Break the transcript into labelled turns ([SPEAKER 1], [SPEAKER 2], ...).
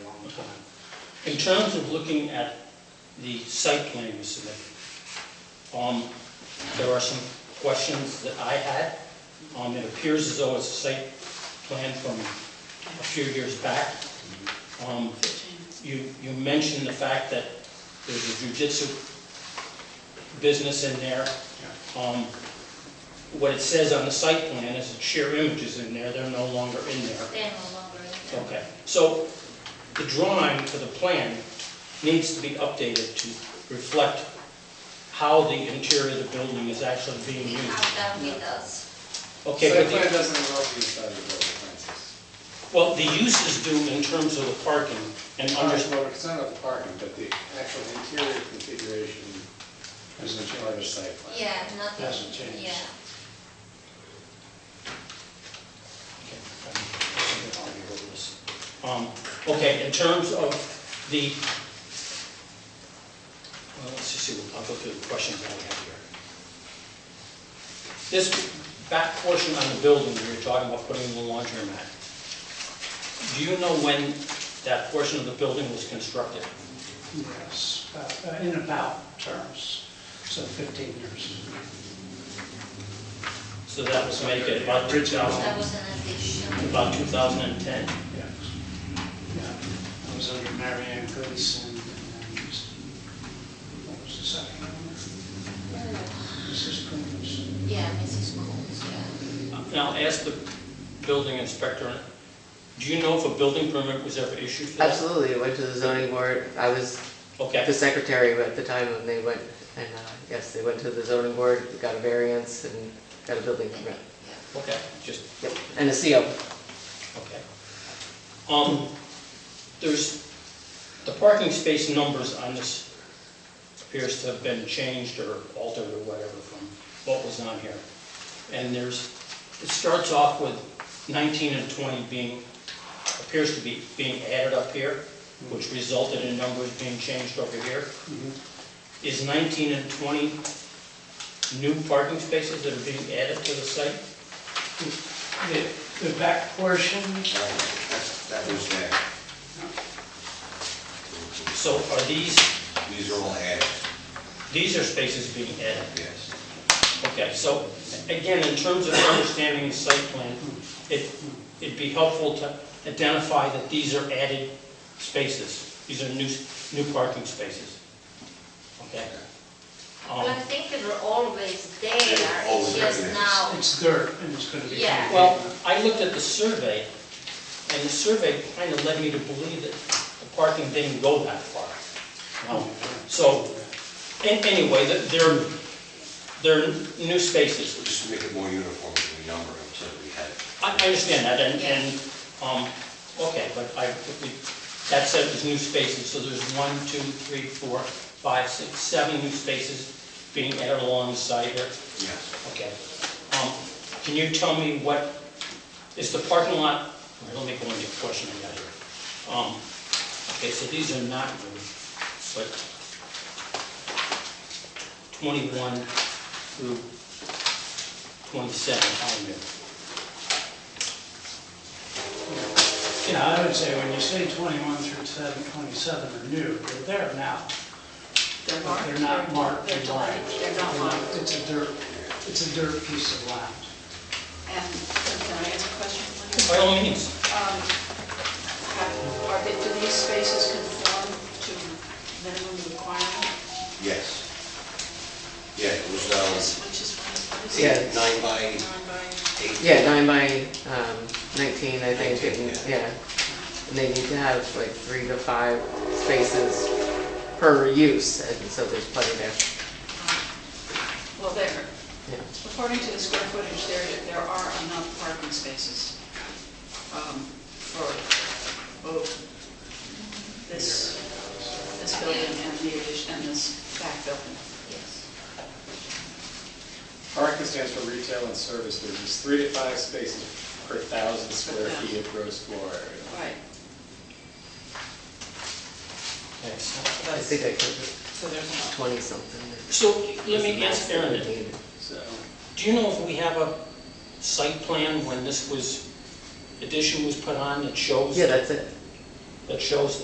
[SPEAKER 1] time. In terms of looking at the site plan you submitted, um, there are some questions that I had. Um, it appears as though it's a site plan from a few years back. Um, you, you mentioned the fact that there's a jujitsu business in there. Um, what it says on the site plan is that sheer images in there, they're no longer in there.
[SPEAKER 2] They are no longer in there.
[SPEAKER 1] Okay, so the drawing for the plan needs to be updated to reflect how the interior of the building is actually being used.
[SPEAKER 2] How that we does.
[SPEAKER 1] Okay,
[SPEAKER 3] Site
[SPEAKER 1] but
[SPEAKER 3] plan
[SPEAKER 1] the,
[SPEAKER 3] doesn't involve the inside of the building, Francis.
[SPEAKER 1] well, the use is due in terms of the parking and
[SPEAKER 3] Well,
[SPEAKER 1] under,
[SPEAKER 3] we're concerned about the parking, but the actual interior configuration is in charge of site plan.
[SPEAKER 2] Yeah, nothing.
[SPEAKER 3] Hasn't changed.
[SPEAKER 2] Yeah.
[SPEAKER 1] um, okay, in terms of the, well, let's just see, I'll go through the questions that we have here. This back portion on the building, we were talking about putting in the laundromat. Do you know when that portion of the building was constructed?
[SPEAKER 4] Yes, uh, uh, in about terms, so 15 years.
[SPEAKER 1] So that was make it about 2000,
[SPEAKER 2] That was an addition.
[SPEAKER 1] about 2010?
[SPEAKER 4] Yes. Yeah, I was under Mary Ann Gleason, and I used, what was the second owner? Mrs. Coombs.
[SPEAKER 2] Yeah, Mrs. Coles, yeah.
[SPEAKER 1] Now, Um, ask the building inspector, do you know if a building permit was ever issued for that?
[SPEAKER 5] Absolutely, it went to the zoning board. I was the
[SPEAKER 1] Okay,
[SPEAKER 5] secretary at the time when they went, and uh, yes, they went to the zoning board, got a variance and got a building permit.
[SPEAKER 1] okay, just,
[SPEAKER 5] Yep, and a CO.
[SPEAKER 1] okay. Um, there's, the parking space numbers on this appears to have been changed or altered or whatever from what was on here. And there's, it starts off with 19 and 20 being, appears to be being added up here, which resulted in numbers being changed over here. Is 19 and 20 new parking spaces that are being added to the site?
[SPEAKER 4] The, the back portion,
[SPEAKER 6] That's, that was that.
[SPEAKER 1] So are these,
[SPEAKER 6] These are all added,
[SPEAKER 1] these are spaces being added?
[SPEAKER 6] yes.
[SPEAKER 1] Okay, so again, in terms of understanding the site plan, it, it'd be helpful to identify that these are added spaces. These are new, new parking spaces. Okay?
[SPEAKER 2] But I
[SPEAKER 1] Um,
[SPEAKER 2] think they were always there,
[SPEAKER 6] Yeah, Oh. always
[SPEAKER 2] it's just
[SPEAKER 6] there.
[SPEAKER 2] now.
[SPEAKER 4] it's dirt, and it's going to be.
[SPEAKER 2] Yeah.
[SPEAKER 1] Well, I looked at the survey, and the survey kind of led me to believe that the parking didn't go that far. Um, So, an- anyway, th- they're, they're new spaces.
[SPEAKER 6] We'll Just make it more uniform when we number them, so that we had it.
[SPEAKER 1] I I understand that, and, and, um, okay, but I, if we- that said, there's new spaces, so there's one, two, three, four, five, six, seven new spaces being added along the side here,
[SPEAKER 6] Yes.
[SPEAKER 1] okay. Um, Can you tell me what, is the parking lot, all right, let me go into the question I got here. Um, Okay, so these are not new, but 21 through 27, how new?
[SPEAKER 4] Yeah, I would say when you say 21 through 7, 27 are new, they're there now.
[SPEAKER 2] They're
[SPEAKER 4] But They're not marked
[SPEAKER 2] They're
[SPEAKER 4] in
[SPEAKER 2] not,
[SPEAKER 4] lines.
[SPEAKER 2] they're not marked.
[SPEAKER 4] It's a dirt, it's a dirt piece of land.
[SPEAKER 7] And, can I ask a question?
[SPEAKER 1] By all means.
[SPEAKER 7] Um, have- Are they, do these spaces conform to minimum requirement?
[SPEAKER 6] Yes. Yeah, it was, um,
[SPEAKER 7] Which is, what is
[SPEAKER 5] Yeah.
[SPEAKER 7] it?
[SPEAKER 6] eight, nine by
[SPEAKER 7] Nine by,
[SPEAKER 6] eight.
[SPEAKER 5] Yeah, nine by um, 19, I think,
[SPEAKER 6] 19,
[SPEAKER 5] and- yeah. And they need to have like three to five spaces per use, and so there's plenty there.
[SPEAKER 7] Um, well, there,
[SPEAKER 5] Yeah.
[SPEAKER 7] according to the square footage, there, there are enough parking spaces um, for both this, this building and the addition, and this back building.
[SPEAKER 2] Yes.
[SPEAKER 3] Parking stands for retail and service business, three to five spaces per thousand square feet of gross floor area.
[SPEAKER 7] Right.
[SPEAKER 1] Excellent.
[SPEAKER 5] I think I could,
[SPEAKER 7] So there's enough.
[SPEAKER 5] 20 something.
[SPEAKER 1] So let me ask Aaron,
[SPEAKER 3] So.
[SPEAKER 1] do you know if we have a site plan when this was, addition was put on that shows,
[SPEAKER 5] Yeah, that's it.
[SPEAKER 1] that shows